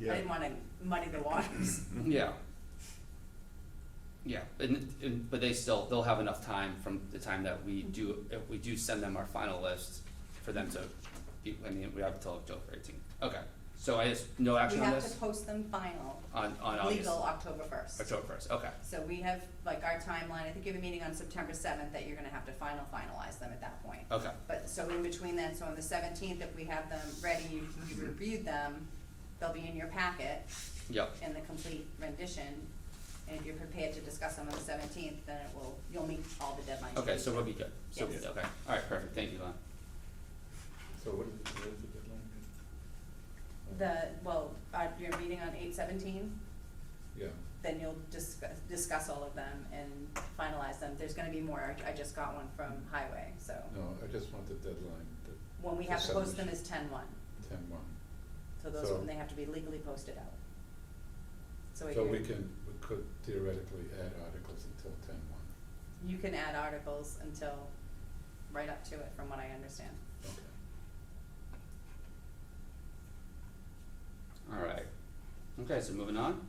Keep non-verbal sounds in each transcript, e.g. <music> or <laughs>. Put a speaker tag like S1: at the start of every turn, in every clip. S1: I
S2: Yeah,
S1: didn't wanna muddy the waters.
S3: Yeah. Yeah, and, and, but they still, they'll have enough time from the time that we do, if we do send them our final list for them to, be I mean, we have until October eighteenth. Okay, so I just, no
S1: We
S3: action on
S1: have to
S3: this?
S1: post them final,
S3: On, on August?
S1: legal October first.
S3: October first, okay,
S1: So we have, like, our timeline, I think you have a meeting on September seventh that you're gonna have to final finalize them at that point.
S3: okay,
S1: But, so in between then, so on the seventeenth, if we have them ready, you you reviewed them, they'll be in your packet
S3: yep,
S1: in the complete rendition. And if you're prepared to discuss them on the seventeenth, then it will, you'll meet all the deadlines. you
S3: okay,
S1: need
S3: so
S1: to.
S3: we'll be good, so,
S1: Yes.
S3: okay, alright, perfect, thank you, Lon.
S2: so what is, what is the deadline?
S1: The, well, uh, your meeting on eight seventeen,
S2: Yeah,
S1: then you'll discuss, discuss all of them and finalize them. There's gonna be more, I I just got one from Highway, so.
S2: no, I just want the deadline, the
S1: When we have to post them
S2: Percentage.
S1: is ten one,
S2: ten one.
S1: so those,
S2: So-
S1: are when they have to be legally posted out. So
S2: So we
S1: you,
S2: can, we could theoretically add articles until ten one,
S1: you can add articles until, right up to it, from what I understand.
S2: okay.
S3: Alright, okay, so moving on.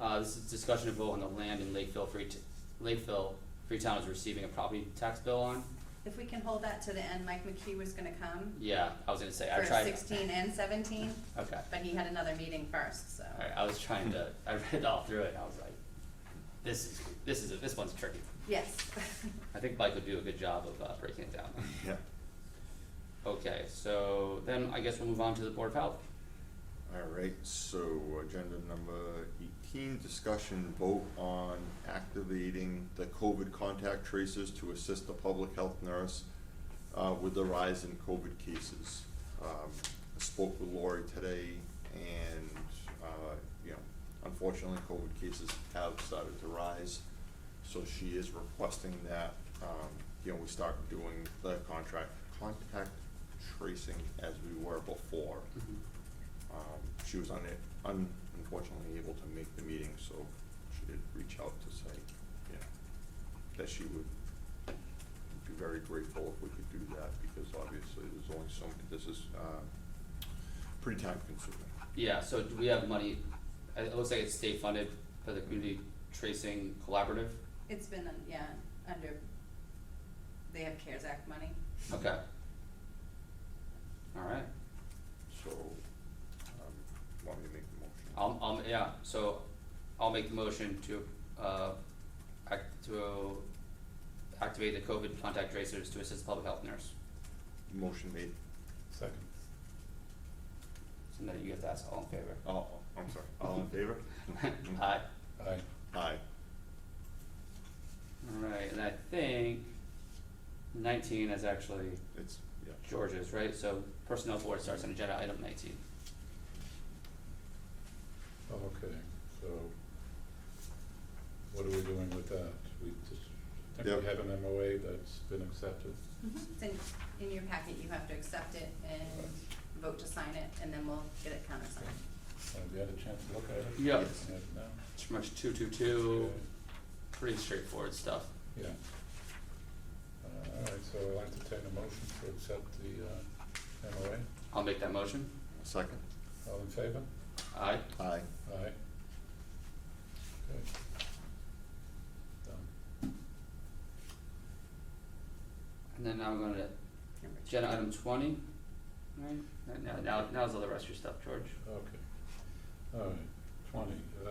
S3: Uh, this is discussion of vote on the land in Lakeville, Free, Lakeville, Freetown is receiving a property tax bill on?
S1: If we can hold that to the end, Mike McKee was gonna come
S3: Yeah, I was gonna say, I
S1: for
S3: tried.
S1: sixteen and seventeen,
S3: Okay,
S1: but he had another meeting first, so.
S3: alright, I was trying to, I read all through it, and I was like, this is, this is, this one's tricky.
S1: Yes. <laughs>
S3: I think Mike would do a good job of, uh, breaking it down.
S4: Yeah.
S3: Okay, so then I guess we'll move on to the Board of Health.
S4: All right, so agenda number eighteen, discussion vote on activating the COVID contact tracers to assist the public health nurse uh, with the rise in COVID cases. Um, I spoke with Lori today and, uh, you know, unfortunately, COVID cases have started to rise. So she is requesting that, um, you know, we start doing the contract, contact tracing as we were before.
S3: Mm-hmm.
S4: Um, she was un- un- unfortunately able to make the meeting, so she did reach out to say, you know, that she would be very grateful if we could do that, because obviously there's only so many, this is, uh, pretty time consuming.
S3: Yeah, so do we have money, uh, it it looks like it's state funded for the community tracing collaborative,
S1: It's been, un- yeah, under, they have CARES Act money.
S3: okay. Alright,
S4: So, um, want me to make the motion?
S3: I'll, I'll, yeah, so I'll make the motion to, uh, act, to activate the COVID contact tracers to assist the public health nurse.
S4: Motion made,
S2: Second.
S3: So now you have to ask all in favor.
S4: oh, I'm sorry, all in favor? Mm-hmm.
S3: Aye.
S2: Aye,
S4: <laughs> Aye,
S3: Alright, and I think nineteen is actually
S4: it's, yeah,
S3: George's, right? So personnel board starts on agenda item nineteen.
S2: Oh, okay, so what are we doing with that? We just, I think
S4: Yep.
S2: we have an MOA that's been accepted,
S1: It's in, in your packet, you have to accept it and vote to sign it, and then we'll get it countersigned.
S2: have you had a chance to look at it?
S3: Yep.
S4: Yes.
S2: Yeah, no?
S3: It's pretty much two, two, two,
S2: Okay.
S3: pretty straightforward stuff.
S2: Yeah. Uh, all right, so I'll entertain a motion to accept the, uh, MOA.
S3: I'll make that motion.
S4: second,
S2: All in favor?
S3: Aye.
S4: aye,
S2: Aye. Okay. Done.
S3: And then I'm gonna,
S1: Number two.
S3: agenda item twenty, right? Right Now, now, now's all the rest of your stuff, George.
S2: Okay. All right, twenty, uh,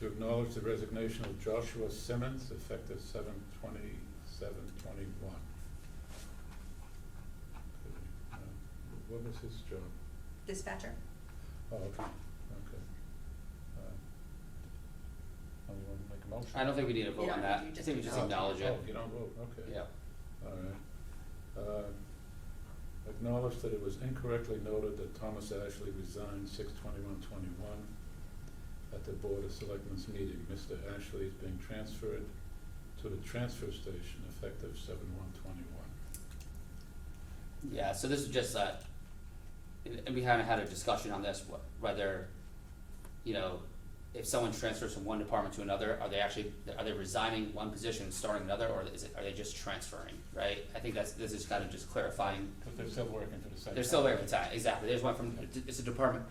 S2: to acknowledge the resignation of Joshua Simmons effective seven twenty, seven twenty-one. What was his job?
S1: Dispatcher,
S2: Oh, okay, okay. Uh, oh, you want to make a motion?
S3: I don't think we need to vote
S1: You
S3: on
S1: don't
S3: that.
S1: need to,
S3: I
S1: you
S3: think we
S1: just
S3: just acknowledge it.
S2: Oh, you don't vote, okay.
S3: Yeah.
S2: All right. Uh, Acknowledge that it was incorrectly noted that Thomas Ashley resigned six twenty-one twenty-one at the Board of Selectmen's meeting. Mr. Ashley is being transferred to the transfer station effective seven one twenty-one.
S3: Yeah, so this is just uh, that, and we haven't had a discussion on this, wh- whether, you know, if someone transfers from one department to another, are they actually, are they resigning one position and starting another, or is it, are they just transferring, right? I think that's, this is kind of just clarifying,
S2: But they're still working for the same.
S3: they're still
S2: company.
S3: there for time, exactly, there's one from, it's a department,